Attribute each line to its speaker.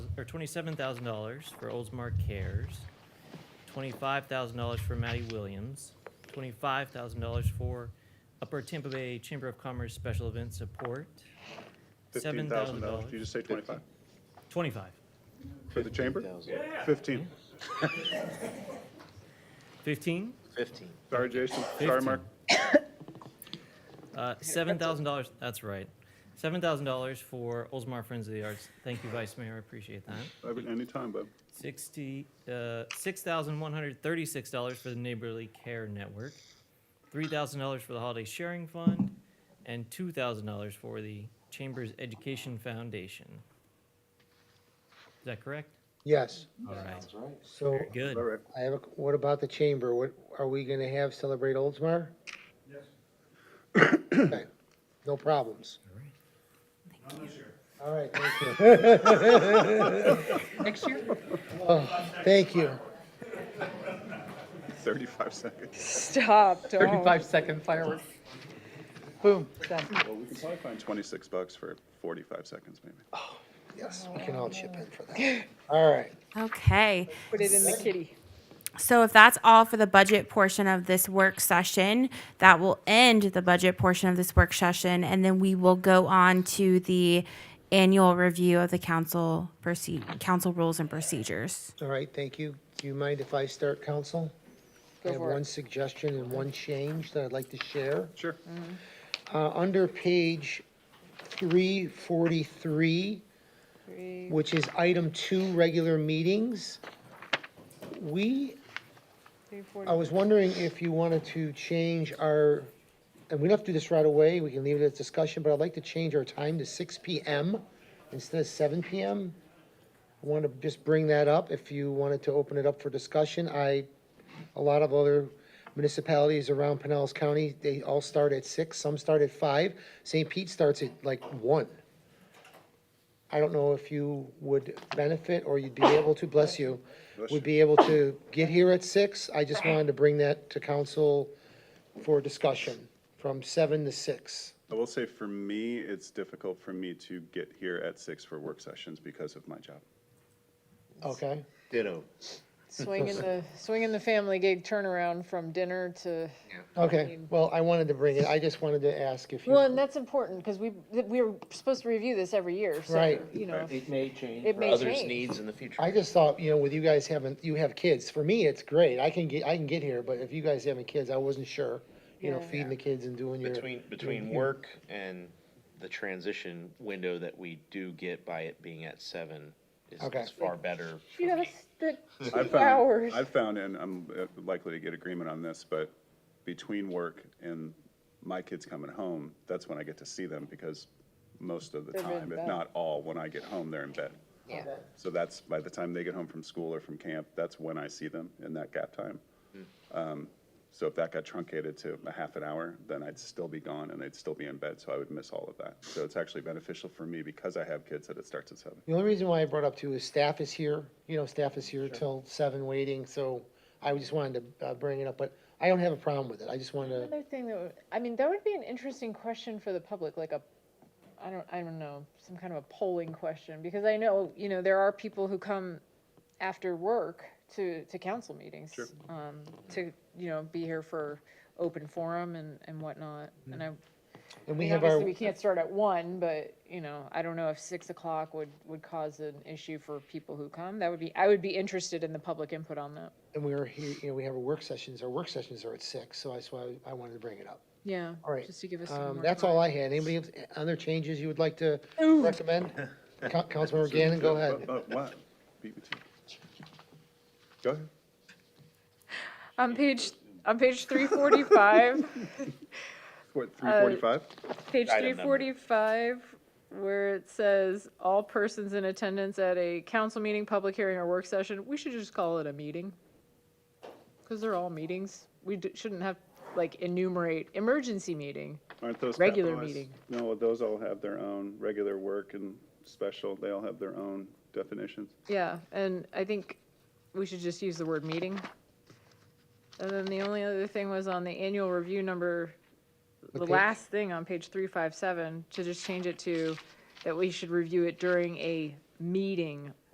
Speaker 1: or twenty-seven thousand dollars for Oldsmar Cares, twenty-five thousand dollars for Maddie Williams, twenty-five thousand dollars for Upper Tampa Bay Chamber of Commerce Special Event Support,
Speaker 2: Fifteen
Speaker 1: seven
Speaker 2: thousand
Speaker 1: thousand
Speaker 2: dollars. Did you
Speaker 1: dollars,
Speaker 2: just say twenty-five?
Speaker 1: twenty-five.
Speaker 2: For the chamber?
Speaker 3: 15,000.
Speaker 2: Fifteen.
Speaker 1: Fifteen,
Speaker 3: Fifteen.
Speaker 2: Sorry, Jason. Sorry, Mark.
Speaker 1: uh, seven thousand dollars, that's right. Seven thousand dollars for Oldsmar Friends of the Arts. Thank you, Vice Mayor, I appreciate that.
Speaker 2: Any time, bud.
Speaker 1: Sixty, uh, six thousand one hundred thirty-six dollars for the Neighborly Care Network, three thousand dollars for the Holiday Sharing Fund, and two thousand dollars for the Chambers Education Foundation. Is that correct?
Speaker 4: Yes,
Speaker 1: All right,
Speaker 3: That's right.
Speaker 4: so
Speaker 1: good.
Speaker 2: All right.
Speaker 4: I have, a what about the chamber? What, are we gonna have Celebrate Oldsmar? Yes. No problems? All right, thank you.
Speaker 5: Next year?
Speaker 4: Thank you.
Speaker 2: Thirty-five seconds.
Speaker 6: Stop, don't.
Speaker 5: Thirty-five second fireworks. Boom, done.
Speaker 2: Well, we can probably find twenty-six bucks for forty-five seconds, maybe.
Speaker 4: Yes, we can all chip in for that. All right.
Speaker 7: Okay.
Speaker 6: Put it in the kitty.
Speaker 7: So if that's all for the budget portion of this work session, that will end the budget portion of this work session, and then we will go on to the annual review of the council proceed, council rules and procedures.
Speaker 4: All right, thank you. Do you mind if I start, council? I
Speaker 6: Go
Speaker 4: have
Speaker 6: for
Speaker 4: one
Speaker 6: it.
Speaker 4: suggestion and one change that I'd like to share.
Speaker 2: Sure.
Speaker 4: Uh, under page three forty-three, which is item two, regular meetings, we,
Speaker 6: Three, four,
Speaker 4: I was wondering if you wanted to change our, and we don't have to do this right away, we can leave it as discussion, but I'd like to change our time to six PM instead of seven PM. I want to just bring that up, if you wanted to open it up for discussion, I, a lot of other municipalities around Pinellas County, they all start at six, some start at five, St. Pete starts at like one. I don't know if you would benefit or you'd be able to, bless you, would be able to get here at six. I just wanted to bring that to council for discussion from seven to six.
Speaker 2: I will say for me, it's difficult for me to get here at six for work sessions because of my job.
Speaker 4: Okay?
Speaker 3: Ditto.
Speaker 6: Swinging the, swinging the family gig turnaround from dinner to,
Speaker 4: Okay, well, I wanted to bring it. I just wanted to ask if you.
Speaker 6: well, and that's important because we, we're supposed to review this every year, so,
Speaker 4: Right.
Speaker 6: you know.
Speaker 3: It may change
Speaker 6: It
Speaker 3: for
Speaker 6: may
Speaker 3: others'
Speaker 6: change.
Speaker 3: needs in the future.
Speaker 4: I just thought, you know, with you guys having, you have kids. For me, it's great. I can get, I can get here, but if you guys having kids, I wasn't sure. You know,
Speaker 6: Yeah.
Speaker 4: feeding the kids and doing your.
Speaker 3: Between, between work and the transition window that we do get by it being at seven is
Speaker 4: Okay.
Speaker 3: is far better. for
Speaker 6: You gotta
Speaker 3: me.
Speaker 6: stick
Speaker 2: I've
Speaker 6: two
Speaker 2: found-
Speaker 6: hours.
Speaker 2: I've found, and I'm uh, likely to get agreement on this, but between work and my kids coming home, that's when I get to see them because most of the
Speaker 6: They're in
Speaker 2: time, if
Speaker 6: bed.
Speaker 2: not all, when I get home, they're in bed.
Speaker 6: Yeah.
Speaker 2: So that's, by the time they get home from school or from camp, that's when I see them in that gap time. Um, So if that got truncated to a half an hour, then I'd still be gone and they'd still be in bed, so I would miss all of that. So it's actually beneficial for me because I have kids that it starts at seven.
Speaker 4: The only reason why I brought up too is staff is here, you know, staff is here till seven waiting, so I just wanted to uh, bring it up, but I don't have a problem with it. I just wanted to,
Speaker 6: Another thing that, would- I mean, that would be an interesting question for the public, like a, I don't, I don't know, some kind of a polling question, because I know, you know, there are people who come after work to, to council meetings. Um, to, you know, be here for open forum and, and whatnot, and I,
Speaker 4: and
Speaker 6: I
Speaker 4: Mm-hmm. we
Speaker 6: mean,
Speaker 4: have our,
Speaker 6: obviously, we can't start at one, but, you know, I don't know if six o'clock would, would cause an issue for people who come, that would be, I would be interested in the public input on that.
Speaker 4: and we were here, you know, we have our work sessions, our work sessions are at six, so that's why I wanted to bring it up.
Speaker 6: Yeah.
Speaker 4: All right,
Speaker 6: Just to give us some
Speaker 4: Um,
Speaker 6: more
Speaker 4: that's
Speaker 6: time.
Speaker 4: all I had. Anybody else, other changes you would like to recommend? Co- Councilmember Gannon, go ahead.
Speaker 2: But what? uh, Beat me to it. Go ahead.
Speaker 6: On page, on page three forty-five,
Speaker 2: What, three
Speaker 6: Uh,
Speaker 2: forty-five?
Speaker 6: page three
Speaker 3: Item number.
Speaker 6: forty-five, where it says, all persons in attendance at a council meeting, public hearing, or work session, we should just call it a meeting. Because they're all meetings. We d- shouldn't have, like, enumerate emergency meeting.
Speaker 2: Aren't those
Speaker 6: Regular
Speaker 2: capitalized?
Speaker 6: meeting.
Speaker 2: No, those all have their own, regular work and special, they all have their own definitions.
Speaker 6: Yeah, and I think we should just use the word meeting. And then the only other thing was on the annual review number, the
Speaker 4: page?
Speaker 6: last thing on page three five seven, to just change it to that we should review it during a meeting